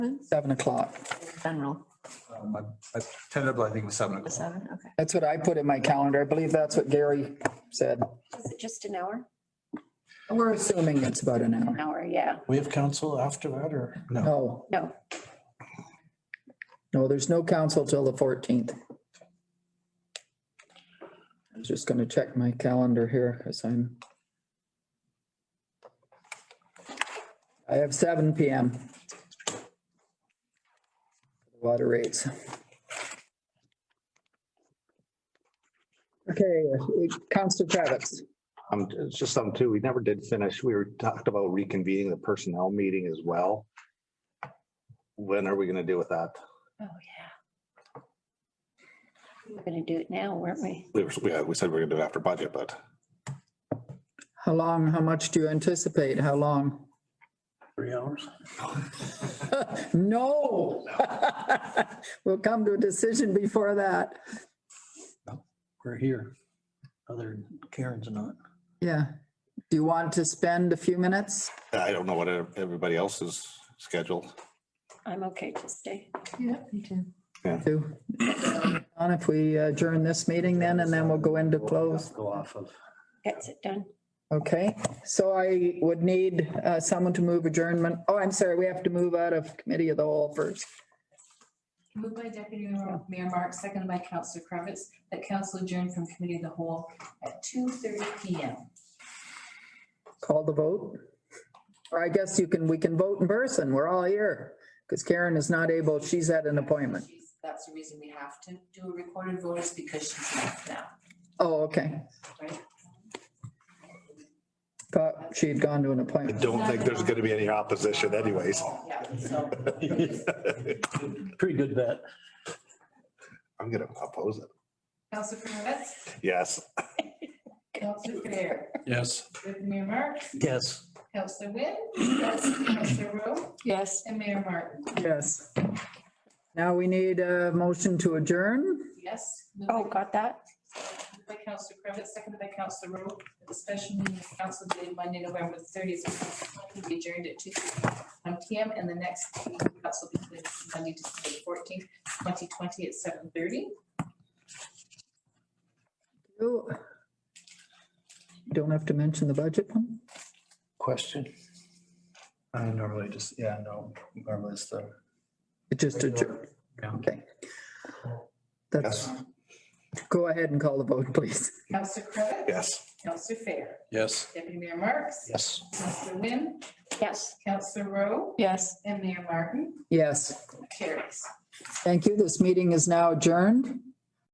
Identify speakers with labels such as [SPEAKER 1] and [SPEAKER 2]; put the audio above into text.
[SPEAKER 1] Seven o'clock.
[SPEAKER 2] general,
[SPEAKER 3] Um, I- I- Tentatively, I think it was seven
[SPEAKER 2] the
[SPEAKER 3] o'clock.
[SPEAKER 2] seven, okay.
[SPEAKER 1] That's what I put in my calendar. I believe that's what Gary said.
[SPEAKER 4] Is it just an hour?
[SPEAKER 1] We're assuming it's about an
[SPEAKER 4] An
[SPEAKER 1] hour.
[SPEAKER 4] hour, yeah.
[SPEAKER 5] We have council after that or no?
[SPEAKER 1] No,
[SPEAKER 4] No,
[SPEAKER 1] no, there's no council till the fourteenth. I was just gonna check my calendar here because I'm. I have seven PM. Water rates. Okay, Council Kravitz.
[SPEAKER 6] Um, it's just something too, we never did finish. We were talked about reconvening the personnel meeting as well. When are we gonna do with that?
[SPEAKER 4] oh, yeah. We We're gonna do it now, weren't we?
[SPEAKER 7] We were, yeah, we said we we're gonna do it after budget, but
[SPEAKER 1] How long, how much do you anticipate? How long?
[SPEAKER 5] Three hours?
[SPEAKER 1] No. We'll come to a decision before that.
[SPEAKER 5] We're here. Other than Karen's not.
[SPEAKER 1] Yeah. Do you want to spend a few minutes?
[SPEAKER 7] I don't know what everybody else's schedule.
[SPEAKER 4] I'm okay to stay.
[SPEAKER 2] Yeah, me too.
[SPEAKER 1] to- On if we adjourn this meeting then, and then we'll go into close.
[SPEAKER 5] Go off of.
[SPEAKER 4] Gets it done.
[SPEAKER 1] Okay, so I would need uh, someone to move adjournment. Oh, I'm sorry, we have to move out of committee of the whole first.
[SPEAKER 8] Moved by Deputy Mayor Mark, seconded by Councilor Kravitz, that council adjourn from committee of the whole at 2:30 PM.
[SPEAKER 1] Call the vote. Or I guess you can, we can vote in person. We're all here because Karen is not able, she's at an appointment.
[SPEAKER 8] She's- That's the reason we have to do a recorded vote is because she's left now,
[SPEAKER 1] Oh, okay.
[SPEAKER 8] right?
[SPEAKER 1] Thought she had gone to an
[SPEAKER 7] I
[SPEAKER 1] appointment.
[SPEAKER 7] don't think there's gonna be any opposition anyways.
[SPEAKER 8] Yeah, so.
[SPEAKER 5] Pretty good bet.
[SPEAKER 7] I'm gonna oppose it.
[SPEAKER 8] Councilor Kravitz,
[SPEAKER 7] Yes.
[SPEAKER 8] Councilor Fair,
[SPEAKER 5] Yes.
[SPEAKER 8] Deputy Mayor Mark,
[SPEAKER 5] Yes.
[SPEAKER 8] Councilor Wynn, Councilor Rowe,
[SPEAKER 2] Yes.
[SPEAKER 8] and Mayor Martin.
[SPEAKER 1] Yes. Now we need a motion to adjourn.
[SPEAKER 8] Yes. moved by
[SPEAKER 4] Oh, got that?
[SPEAKER 8] Moved By Councilor Kravitz, seconded by Councilor Rowe, that the special meeting of council dated Monday, November thirtieth, will be adjourned at two one P M. And the next meeting of council will be held Monday, December fourteenth, twenty twenty at seven thirty.
[SPEAKER 1] You Don't have to mention the budget one.
[SPEAKER 5] Question? I normally just, yeah, no, normally it's the.
[SPEAKER 1] It just adjourned.
[SPEAKER 5] Yeah.
[SPEAKER 1] Okay. That's, go ahead and call the vote, please.
[SPEAKER 8] Councilor Cravitz?
[SPEAKER 7] Yes.
[SPEAKER 8] Councilor Fair?
[SPEAKER 5] Yes.
[SPEAKER 8] Deputy Mayor Marks?
[SPEAKER 5] Yes.
[SPEAKER 8] Councilor Wynn?
[SPEAKER 4] Yes.
[SPEAKER 8] Councilor Rowe?
[SPEAKER 2] Yes.
[SPEAKER 8] And Mayor Martin?
[SPEAKER 1] Yes,
[SPEAKER 8] Carries.
[SPEAKER 1] thank you. This meeting is now adjourned.